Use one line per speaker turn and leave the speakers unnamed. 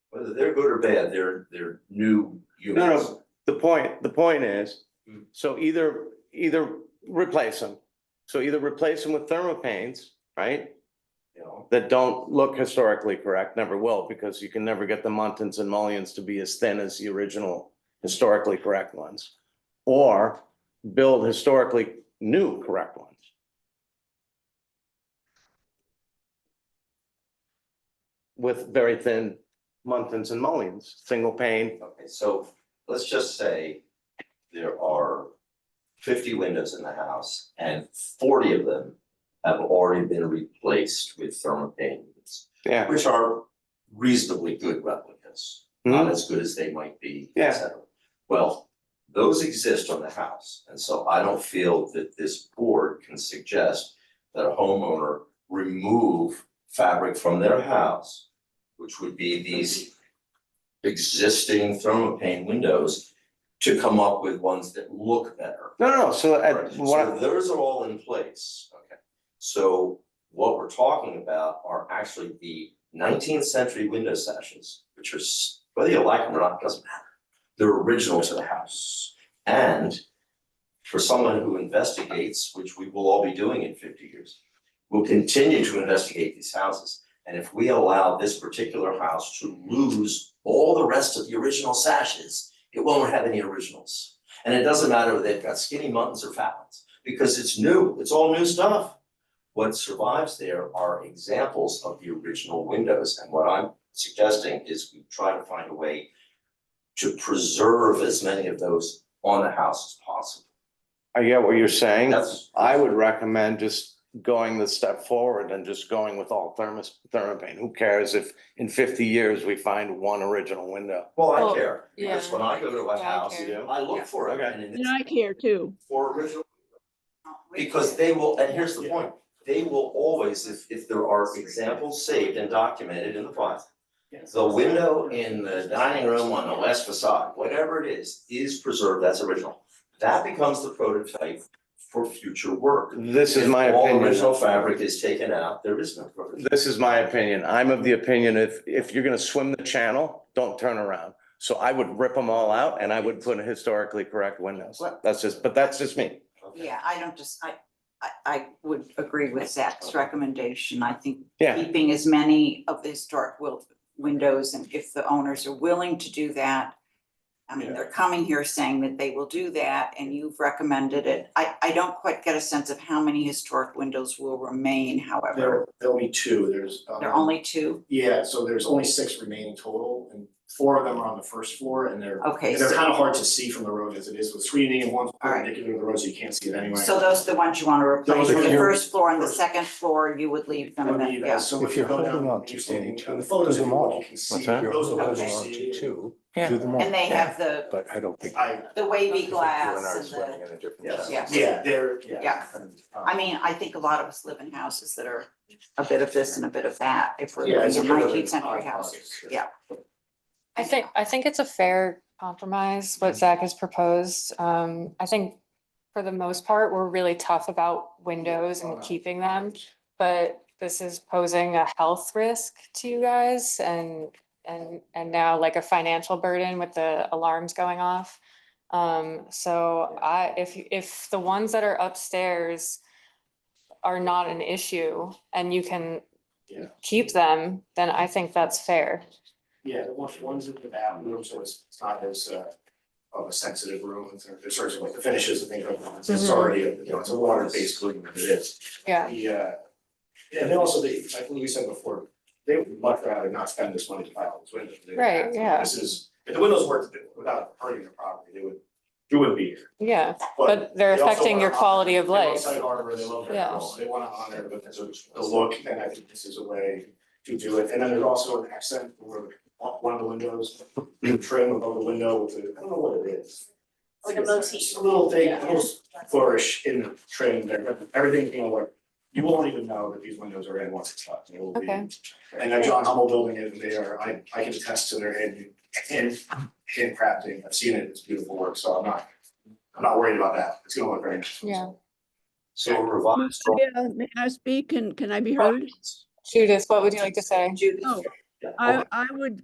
whether they're good or bad, they're, they're new
No,
units.
no, the point, the point is,
Hmm.
so either, either replace them. So either replace them with thermopanes, right?
You know,
That don't look historically correct, never will, because you can never get the muntins and mullions to be as thin as the original historically correct ones. Or build historically new correct ones. With very thin muntins and mullions, single pane,
okay, so let's just say there are fifty windows in the house and forty of them have already been replaced with thermopane units,
yeah.
which are reasonably good replicas, not as good as they might be,
Hmm. Yeah.
et cetera. Well, those exist on the house, and so I don't feel that this board can suggest that a homeowner remove fabric from their house, which would be these existing thermopane windows to come up with ones that look better.
No, no, so
Right,
at, what,
So
I-
those are all in place, okay. So what we're talking about are actually the nineteenth century window sashes, which are, s- whether you like them or not, doesn't matter. They're original to the house. And for someone who investigates, which we will all be doing in fifty years, will continue to investigate these houses. And if we allow this particular house to lose all the rest of the original sashes, it won't have any originals. And it doesn't matter whether they've got skinny muttons or fat ones, because it's new, it's all new stuff. What survives there are examples of the original windows, and what I'm suggesting is we try to find a way to preserve as many of those on the house as possible.
I get what you're saying.
That's,
I would recommend just going the step forward and just going with all thermos, thermopane. Who cares if in fifty years we find one original window?
well, I
Well,
care, because
yeah.
when I go to a
Yeah, I
house,
care.
I look for it,
Okay.
and in
And
this,
I care too.
for original
Oh,
Because they will, and here's the point, they will always, if if there are examples saved and documented in the file. The window in the dining room on the west facade, whatever it is, is preserved, that's original. That becomes the prototype for future work.
This is my
If All
opinion.
original fabric is taken out, there is no prototype.
This is my opinion. I'm of the opinion if, if you're gonna swim the channel, don't turn around. So I would rip them all out and I would put historically correct windows. That's just, but that's just me.
Okay.
Yeah, I don't just, I, I, I would agree with Zach's recommendation. I think
Yeah.
keeping as many of the historic will, windows and if the owners are willing to do that. I mean, they're coming here saying that they will do that and you've recommended it. I, I don't quite get a sense of how many historic windows will remain, however.
There, there'll be two, there's. um,
There are only two?
Yeah, so there's only six remaining total, and four of them are on the first floor, and they're,
Okay,
and they're
so,
kind of hard to see from the road as it is with screening and one's
right.
perpendicular to the road, so you can't see it anyway.
so those are the ones you want to replace.
Those are
The
here.
first floor and the second floor, you would leave them,
Don't
and then-
need that.
yeah.
So
If
if you
you're
go
holding
down,
on to
you're standing,
two,
on the photos,
do
if
them
you look,
all.
you can see,
What's that?
those are
Okay.
those you
Holding on to
see.
two,
Yeah.
do them all.
And they have the,
But I don't think.
I,
the wavy
You're
glass
not
and the.
swimming in a different
Yes.
side.
Yeah.
yeah, they're, yeah.
Yeah.
And, um,
I mean, I think a lot of us live in houses that are a bit of this and a bit of that, if we're
Yeah,
living
it's
in
a bit of
nineteenth
an
century
odd
houses,
product.
yeah.
I think, I think it's a fair compromise, what Zach has proposed. Um, I think for the most part, we're really tough about windows and keeping them. But this is posing a health risk to you guys and, and, and now like a financial burden with the alarms going off. Um, so I, if, if the ones that are upstairs are not an issue and you can
Yeah.
keep them, then I think that's fair.
Yeah, the ones, ones in the bathroom, so it's it's not as uh of a sensitive room, it's sort of sort of like the finishes and things like that, it's
Mm-hmm.
Mhm.
already, you know, it's a water based cleaning, it is.
Yeah.
The uh, and then also they, like we said before, they would much rather not spend this money to buy all those windows. than they
Right,
have to.
yeah.
This is, if the windows worked without hurting their property, they would, you wouldn't be here,
Yeah.
but
But they're
they also
affecting
wanna
your
honor-
quality of
they want
life.
site harbor, they love their
Yeah.
house, they wanna honor, but there's a- the look, and I think this is a way to do it, and then there's also an accent where one of the windows, you trim above the window with a, I don't know what it is. Like a motif. A little thing, a little flourish in the trim there, but everything, you know, like, you won't even know that these windows are in once it's done, it will be.
Okay.
And that John Hummel building is, they are, I, I can attest to their hand, hand, handcrafting, I've seen it, it's beautiful work, so I'm not, I'm not worried about that, it's gonna look very nice.
Yeah.
So a revised.
Yeah, May I speak and can I be heard?
Judith, what would you like to say?
Judith,
Oh. I, I would